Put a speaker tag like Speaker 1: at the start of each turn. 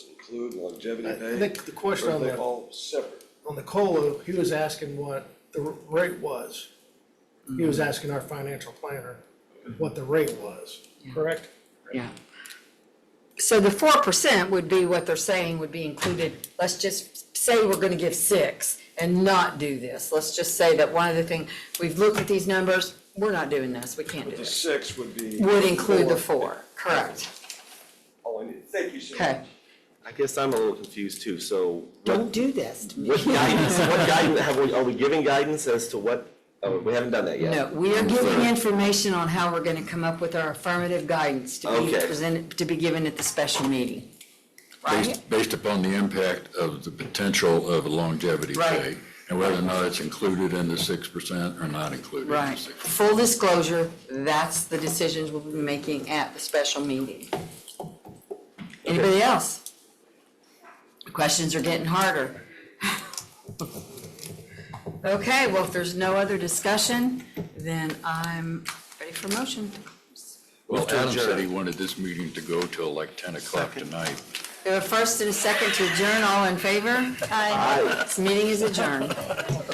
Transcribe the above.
Speaker 1: include longevity
Speaker 2: I
Speaker 1: pay?
Speaker 2: think the question
Speaker 1: Or are
Speaker 2: on
Speaker 1: they
Speaker 2: the-
Speaker 1: all separate?
Speaker 2: on the COLA, he was asking what the r- rate was. He was asking our financial planner what the rate was, correct?
Speaker 3: Yeah. So the four percent would be what they're saying would be included, let's just say we're gonna give six and not do this. Let's just say that one of the thing, we've looked at these numbers, we're not doing this, we can't do
Speaker 1: The
Speaker 3: this.
Speaker 1: six would be.
Speaker 3: Would include the four, correct,
Speaker 1: All Oh, I need, thank you so much.
Speaker 3: okay.
Speaker 4: I guess I'm a little confused too, so
Speaker 3: Don't
Speaker 4: what,
Speaker 3: do this to me.
Speaker 4: what guidance, what guidance, have we, are we giving guidance as to what, oh, we haven't done that yet?
Speaker 3: No, we are giving information on how we're gonna come up with our affirmative guidance to be
Speaker 4: Okay.
Speaker 3: presented, to be given at the special meeting. Right?
Speaker 5: Based, based upon the impact of the potential of longevity
Speaker 3: Right.
Speaker 5: pay, and whether or not it's included in the six percent or not included in the
Speaker 3: Right.
Speaker 5: six.
Speaker 3: Full disclosure, that's the decisions we'll be making at the special meeting. Anybody else? Questions are getting harder. Okay, well, if there's no other discussion, then I'm ready for motion.
Speaker 5: Well,
Speaker 4: to
Speaker 5: Adam said
Speaker 4: adjourn.
Speaker 5: he wanted this meeting to go till like ten o'clock tonight.
Speaker 3: Uh, There are first and a second to adjourn, all in favor? Aye. This meeting is adjourned.